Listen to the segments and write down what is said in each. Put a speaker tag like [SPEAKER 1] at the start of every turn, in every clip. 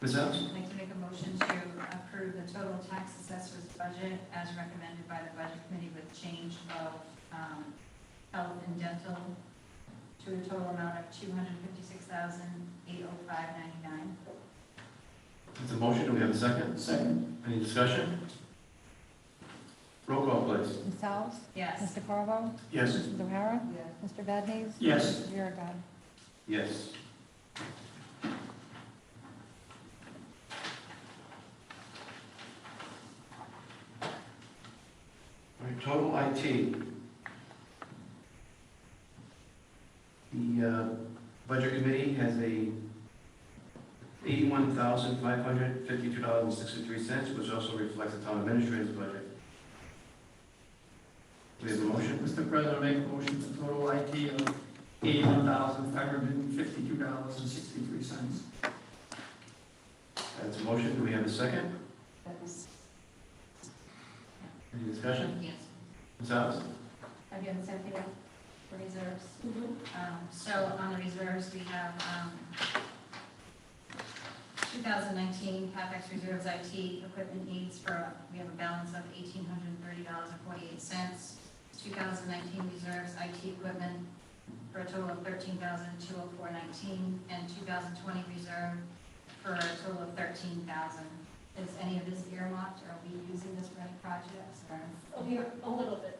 [SPEAKER 1] Ms. Ennis?
[SPEAKER 2] I'd like to make a motion to approve the total tax assessor's budget as recommended by the budget committee with change of um, health and dental to a total amount of $256,805.99.
[SPEAKER 1] It's a motion, do we have a second?
[SPEAKER 3] Second.
[SPEAKER 1] Any discussion? Roll call, please.
[SPEAKER 4] Ms. Alves?
[SPEAKER 2] Yes.
[SPEAKER 4] Mr. Corvo?
[SPEAKER 1] Yes.
[SPEAKER 4] Mrs. O'Hara?
[SPEAKER 2] Yes.
[SPEAKER 4] Mr. Badnees?
[SPEAKER 3] Yes.
[SPEAKER 4] Mrs. Biragad.
[SPEAKER 1] Yes. All right, total IT. The uh, Budget Committee has a eighty-one thousand five hundred fifty-two dollars and sixty-three cents, which also reflects the town administrator's budget. Do we have a motion?
[SPEAKER 3] Mr. President, I make a motion for total IT of eighty-one thousand five hundred and fifty-two dollars and sixty-three cents.
[SPEAKER 1] That's a motion, do we have a second? Any discussion?
[SPEAKER 2] Yes.
[SPEAKER 1] Ms. Alves?
[SPEAKER 2] Again, same thing for reserves. Um, So on the reserves, we have um, 2019 CapEx reserves IT equipment needs for, we have a balance of $1,830.48. 2019 reserves IT equipment for a total of $13,204.19. And 2020 reserve for a total of $13,000. Is any of this earmarked? Are we using this for any projects or?
[SPEAKER 5] A little- a little bit.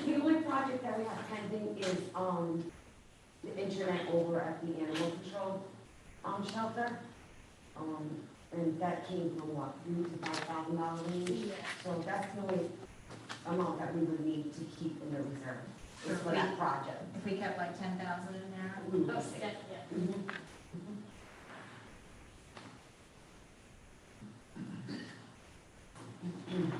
[SPEAKER 5] The only project that we have pending is, um, the internet over at the animal control, um, shelter. Um, and that came from what, three to five thousand dollars So that's the only amount that we would need to keep in the reserve, is for that project.
[SPEAKER 2] If we kept like ten thousand in there,
[SPEAKER 5] Mm.
[SPEAKER 6] yeah.
[SPEAKER 5] Mhm. Mm-hmm.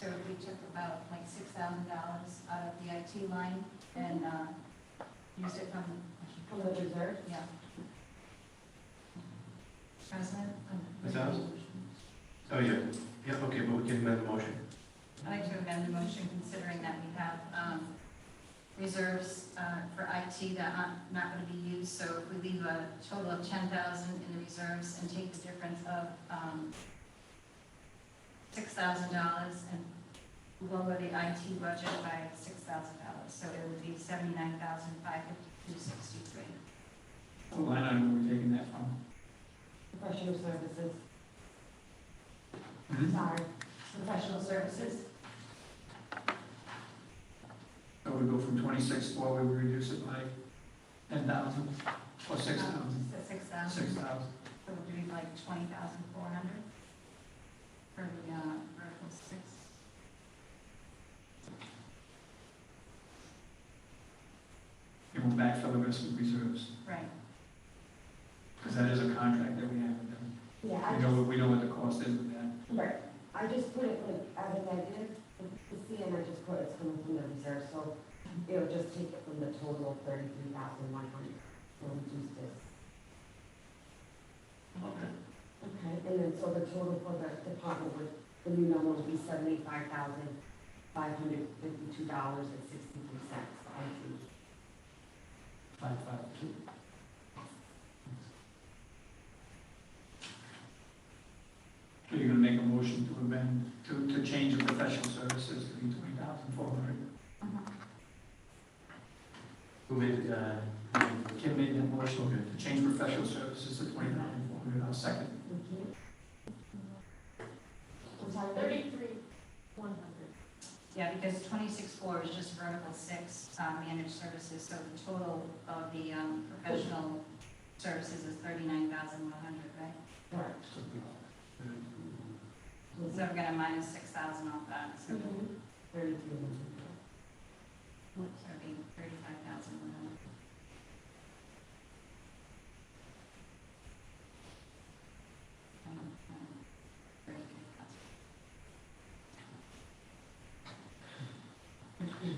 [SPEAKER 2] so if we took about like six thousand dollars out of the IT line and, uh, used it from,
[SPEAKER 5] From the reserve?
[SPEAKER 2] yeah. President? um,
[SPEAKER 1] Ms. Adams? Oh, yeah, yeah, okay, but we can amend the motion.
[SPEAKER 2] I'd like to amend the motion considering that we have, um, reserves, uh, for IT that aren't, not gonna be used. So if we leave a total of ten thousand in the reserves and take the difference of, um, six thousand dollars and lower the IT budget by six thousand dollars. So it would be seventy-nine thousand five fifty-two sixty-three.
[SPEAKER 3] What line item are we taking that from?
[SPEAKER 5] Professional services,
[SPEAKER 3] Mhm.
[SPEAKER 5] sorry.
[SPEAKER 2] Professional services?
[SPEAKER 3] So we go from twenty-six four, we reduce it by ten thousand, or six thousand,
[SPEAKER 2] Um, Six
[SPEAKER 3] six
[SPEAKER 2] thousand,
[SPEAKER 3] thousand.
[SPEAKER 2] so it would be like twenty thousand four hundred for the, uh, vertical six.
[SPEAKER 3] And we'll backfill the rest with reserves,
[SPEAKER 2] Right,
[SPEAKER 3] because that is a contract that we have with them.
[SPEAKER 5] Yeah, I
[SPEAKER 3] We know, we know what the cost is with that.
[SPEAKER 5] Right, I just put it like as a negative, the C and I just put it's coming from the reserve, so it'll just take it from the total of thirty-three thousand one hundred, so reduce this.
[SPEAKER 1] Okay.
[SPEAKER 5] Okay. And then, so the total for the department would, the new number would be seventy-five thousand five hundred fifty-two dollars and sixty-three cents, I see.
[SPEAKER 3] Five, five, two. So you're gonna make a motion to amend, to, to change the professional services to be twenty thousand four hundred?
[SPEAKER 1] Who made, uh,
[SPEAKER 3] Kim made that motion
[SPEAKER 1] Okay.
[SPEAKER 3] to change professional services to twenty thousand four hundred, I'll second.
[SPEAKER 5] Okay. Mm-hmm. I'm sorry.
[SPEAKER 6] Thirty-three, one hundred.
[SPEAKER 2] yeah, because twenty-six four is just vertical six, uh, managed services, so the total of the, um, professional services is thirty-nine thousand one hundred, right?
[SPEAKER 5] Correct.
[SPEAKER 2] So we're gonna minus six thousand off that, so it'll
[SPEAKER 5] Mm-hmm. Thirty-three.
[SPEAKER 2] so it'll be thirty-five thousand one hundred.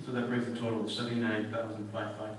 [SPEAKER 1] So that brings the total of seventy-nine thousand five five